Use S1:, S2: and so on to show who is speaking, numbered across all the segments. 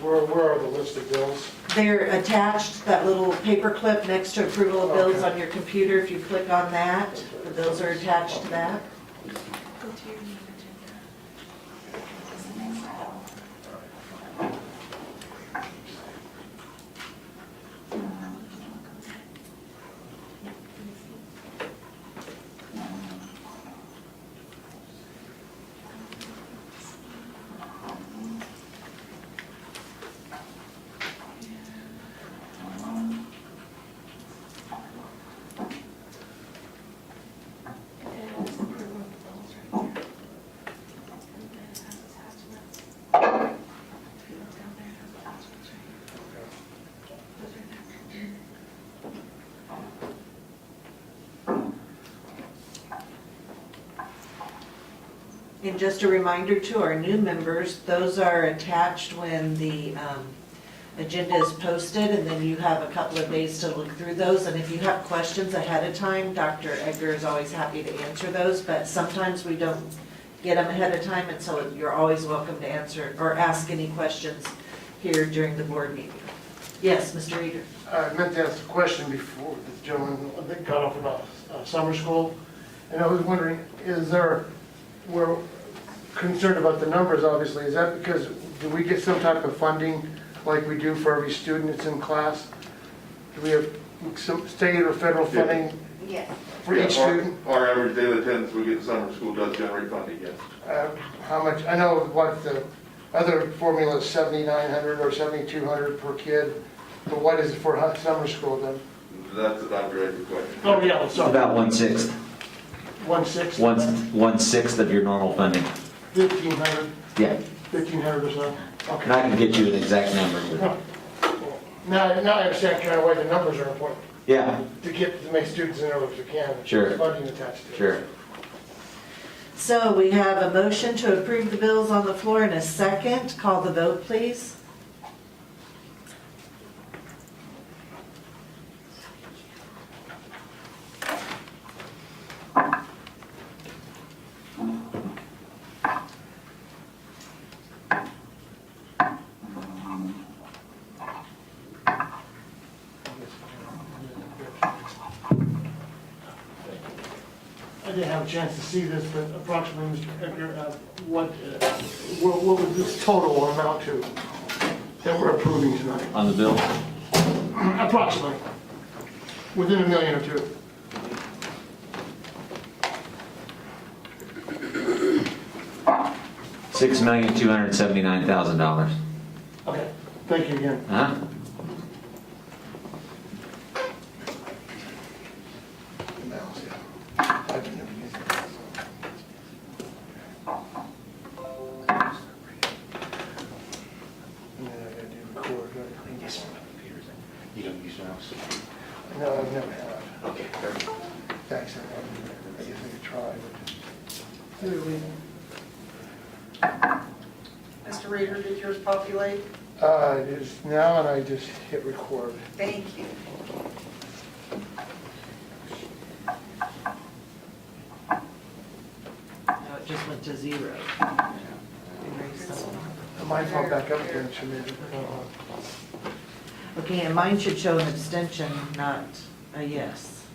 S1: Where, where are the listed bills?
S2: They're attached, that little paper clip next to approval of bills
S1: Okay.
S2: on your computer, if you click on that, the bills are attached to that.
S3: Go to your meeting agenda. It is approval of bills right there. And then it has attachments. If you look down there, it has attachments right here. Those are next.
S2: And just a reminder to our new members, those are attached when the um, agenda is posted, and then you have a couple of days to look through those. And if you have questions ahead of time, Dr. Edgar is always happy to answer those, but sometimes we don't get them ahead of time, and so you're always welcome to answer or ask any questions here during the board meeting. Yes, Mr. Reader?
S1: I meant to ask a question before the gentleman that got off about uh, summer school. And I was wondering, is there, we're concerned about the numbers, obviously. Is that because, do we get some type of funding like we do for every student that's in class? Do we have some state or federal
S4: Yeah.
S1: funding
S5: Yes.
S1: for each
S4: Yeah, our-
S1: student?
S4: Our average daily attendance we get in summer school does generate funding, yes.
S1: Uh, How much, I know what the other formula is 7,900 or 7,200 per kid, but what is it for hu- summer school then?
S4: That's a direct question.
S1: Oh, yeah,
S6: It's About one-sixth,
S1: One-sixth?
S6: one, one-sixth of your normal funding.
S1: 1,500,
S6: Yeah,
S1: 1,500 or so?
S6: and
S1: Okay.
S6: I can get you an exact number, but,
S1: Now, now I understand kind of why the numbers are important,
S6: yeah,
S1: to get as many students in there as we can. with
S6: Sure.
S1: Funding attached to it.
S6: sure.
S2: So we have a motion to approve the bills on the floor in a second. Call the vote, please.
S1: I didn't have a chance to see this, but approximately, Mr. Edgar, uh, what, uh, what what would this total amount to that we're approving tonight?
S6: On the bill,
S1: Approximately, within a million or two.
S6: six million, two hundred and seventy-nine thousand dollars.
S1: Okay, thank you again.
S6: Uh-huh.
S7: You don't use a mouse?
S1: No, I've never had.
S7: Okay.
S1: Thanks, I guess I could try,
S8: Mr. Reader, did yours populate?
S1: but. Uh, it is now, and I just hit record.
S8: Thank you.
S2: No, it just went to zero. Erase that one.
S1: I might pop back up again, should maybe.
S2: Okay, and mine should show an abstention, not a yes.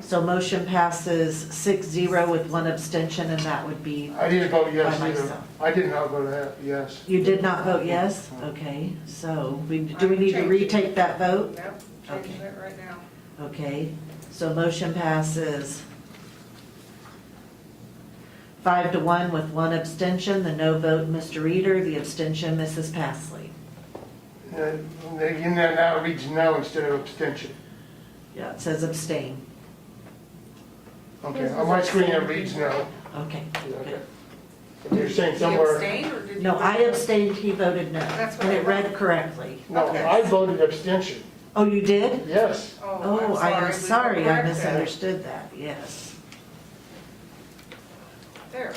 S2: So motion passes six zero with one abstention, and that would be,
S1: I didn't vote yes
S2: By
S1: either.
S2: myself.
S1: I did not vote that, yes.
S2: you did not vote yes? Okay, so we, do we need to retake that vote?
S8: Yep,
S2: Okay.
S8: changing it right now.
S2: Okay, so motion passes five to one with one abstention, the no vote, Mr. Reader, the abstention, Mrs. Pasley.
S1: Uh, In there now it reads no instead of abstention.
S2: Yeah, it says abstain.
S1: Okay, on my screen it reads no.
S2: Okay,
S1: Okay.
S2: good.
S1: But You're saying
S8: Did
S1: somewhere,
S8: you abstain or did you?
S2: No, I abstained, he voted no.
S8: That's what
S2: And
S8: I
S2: it read correctly.
S1: no, I voted abstention,
S2: Oh, you did?
S1: yes.
S8: Oh,
S2: Oh, I am
S8: I'm sorry.
S2: sorry,
S8: We
S2: I
S8: corrected.
S2: misunderstood that, yes.
S8: There.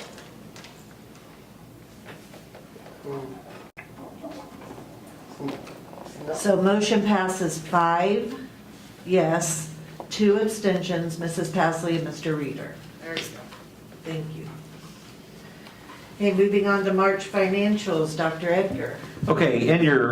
S1: Mm. No.
S2: So motion passes five, yes, two abstentions, Mrs. Pasley and Mr. Reader.
S8: There you go.
S2: Thank you. Okay, moving on to March financials, Dr. Edgar.
S6: Okay, in your